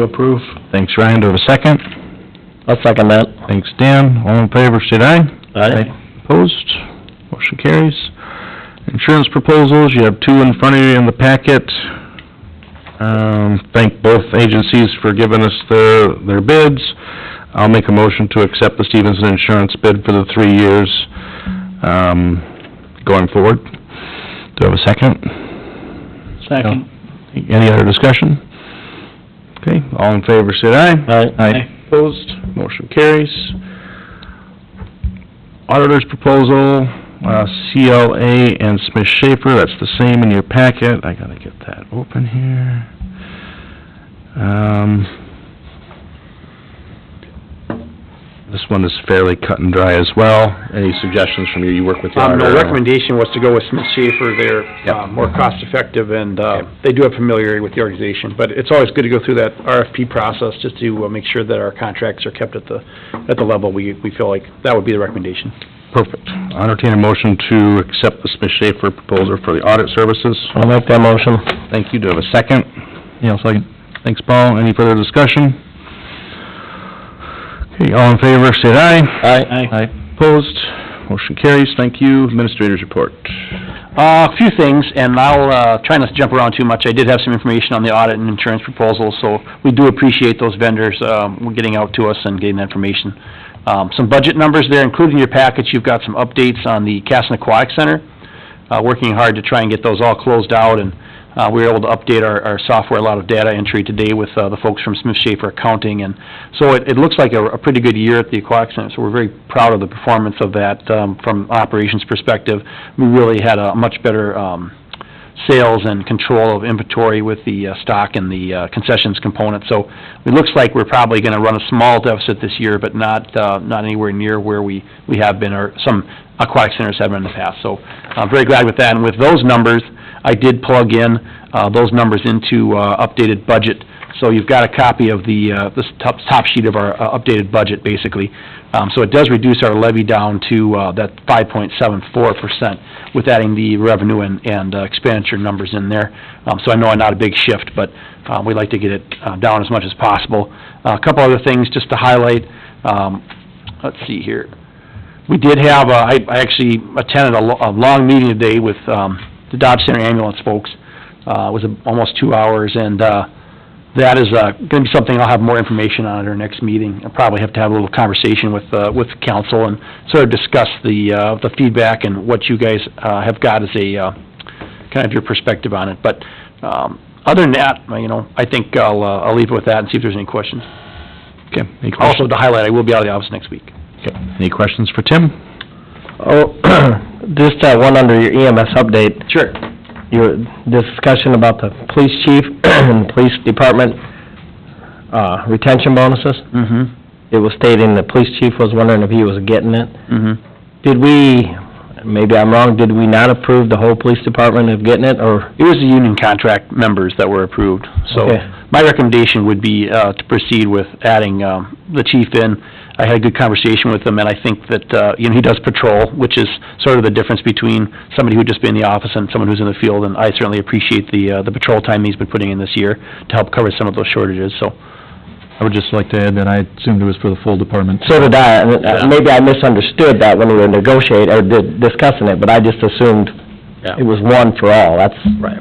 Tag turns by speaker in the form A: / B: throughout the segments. A: to approve. Thanks, Ryan, do I have a second?
B: I'll second that.
A: Thanks, Dan, all in favor, state aye.
B: Aye.
A: Opposed, motion carries. Insurance proposals, you have two in front of you in the packet. Um, thank both agencies for giving us their, their bids. I'll make a motion to accept the Stevenson Insurance bid for the three years, um, going forward. Do I have a second?
B: Second.
A: Any other discussion? Okay, all in favor, say aye.
B: Aye.
A: Opposed, motion carries. Auditor's proposal, uh, CLA and Smith Schaefer, that's the same in your packet, I gotta get that open here. Um, this one is fairly cut and dry as well. Any suggestions from you, you work with the
C: Um,
A: auditor?
C: the recommendation was to go with Smith Schaefer, they're,
A: Yeah.
C: uh, more cost-effective, and, uh, they do have familiarity with the organization, but it's always good to go through that RFP process, just to, uh, make sure that our contracts are kept at the, at the level we, we feel like, that would be the recommendation.
A: Perfect. I entertain a motion to accept the Smith Schaefer proposal for the audit services.
B: I'll make that motion.
A: Thank you. Do I have a second?
B: Yeah, I'll second.
A: Thanks, Paul. Any further discussion? Okay, all in favor, say aye.
B: Aye.
A: Opposed? Motion carries. Thank you. Administrators report.
C: Uh, a few things, and I'll, uh, try not to jump around too much. I did have some information on the audit and insurance proposals, so we do appreciate those vendors, um, getting out to us and getting that information. Um, some budget numbers there, including your package, you've got some updates on the Casson Aquatic Center. Uh, working hard to try and get those all closed out, and, uh, we were able to update our, our software, a lot of data entry today with, uh, the folks from Smith Schaefer Accounting, and so it, it looks like a, a pretty good year at the Aquatic Center, so we're very proud of the performance of that, um, from operations perspective. We really had a much better, um, sales and control of inventory with the uh, stock and the uh, concessions component. So it looks like we're probably going to run a small deficit this year, but not, uh, not anywhere near where we, we have been, or some aquatic centers have been in the past. So I'm very glad with that. And with those numbers, I did plug in uh, those numbers into uh, updated budget. So you've got a copy of the, uh, this top, top sheet of our uh, updated budget, basically. Um, so it does reduce our levy down to, uh, that five point seven four percent with adding the revenue and, and uh, expenditure numbers in there. Um, so I know I'm not a big shift, but, uh, we like to get it, uh, down as much as possible. Uh, A couple other things just to highlight, um, let's see here. We did have, uh, I, I actually attended a, lo- a long meeting today with, um, the Dodge Center ambulance folks. Uh, it was a- almost two hours and, uh, that is, uh, gonna be something I'll have more information on at our next meeting. I'll probably have to have a little conversation with, uh, with council and sort of discuss the, uh, the feedback and what you guys, uh, have got as a, uh, kind of your perspective on it. But, um, other than that, you know, I think I'll, uh, I'll leave it with that and see if there's any questions.
A: Okay, any questions?
C: Also, to highlight, I will be out of the office next week.
A: Okay. Oh. Any questions for Tim?
B: Oh, just that one under your EMS update,
C: Sure.
B: your discussion about the police chief and police department, uh, retention bonuses.
C: Mm-hmm.
B: It was stating the police chief was wondering if he was getting it.
C: Mm-hmm.
B: Did we, maybe I'm wrong, did we not approve the whole police department of getting it, or?
C: It was the union contract members that were approved, so
B: Okay.
C: my recommendation would be uh, to proceed with adding um, the chief in. I had a good conversation with him, and I think that, uh, you know, he does patrol, which is sort of the difference between somebody who just been in the office and someone who's in the field, and I certainly appreciate the, uh, the patrol time he's been putting in this year to help cover some of those shortages, so.
D: I would just like to add that I assumed it was for the full department.
B: So did I, and uh, maybe I misunderstood that when we were negotiating, or di- discussing it, but I just assumed
C: Yeah.
B: it was one for all, that's... Right.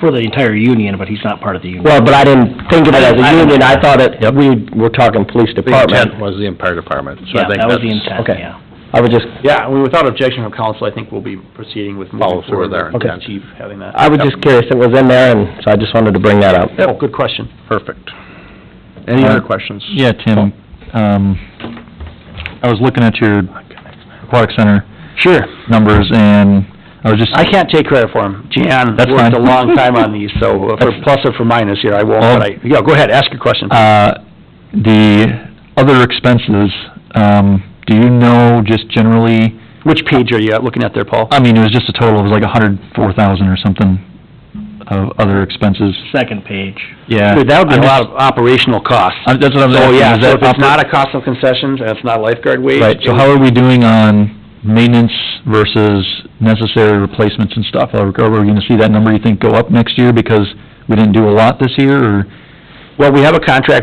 E: for the entire union, but he's not part of the union.
B: Well, but I didn't think of it as
E: I- I-
B: a union, I thought it, we were talking police department.
A: was the entire department, so
E: Yeah, that was the intent,
B: okay.
E: yeah.
B: I was just,
C: Yeah, I mean, without objection from council, I think we'll be proceeding with
A: Follow
C: moving
A: through
C: forward
A: with our
C: with the
B: intent.
C: chief having that.
B: I was just curious, it was in there, and so I just wanted to bring that up.
C: Oh, good question.
A: Perfect. Any other questions?
D: Uh, Yeah, Tim, um, I was looking at your aquatic center
C: Sure.
D: numbers and I was just,
C: I can't take credit for them. Jan
D: That's
C: worked a
D: fine.
C: long time on these, so uh, for plus or for minus here, I won't, but I, yeah, go ahead, ask your question.
D: Oh. uh, the other expenses, um, do you know just generally,
C: Which page are you at looking at there, Paul?
D: I mean, it was just a total, it was like a hundred four thousand or something of other expenses.
E: Second page.
D: Yeah.
C: Dude, That would be
D: I'm
C: a
D: just-
C: lot of operational costs.
D: I'm- That's what I'm
C: So,
D: asking.
C: yeah,
D: is
C: so
D: that
C: if it's
D: oper-
C: not a cost of concessions, and it's not lifeguard wage.
D: Right, so how are we doing on maintenance versus necessary replacements and stuff? Are are we gonna see that number, you think, go up next year because we didn't do a lot this year, or?
C: Well, we have a contract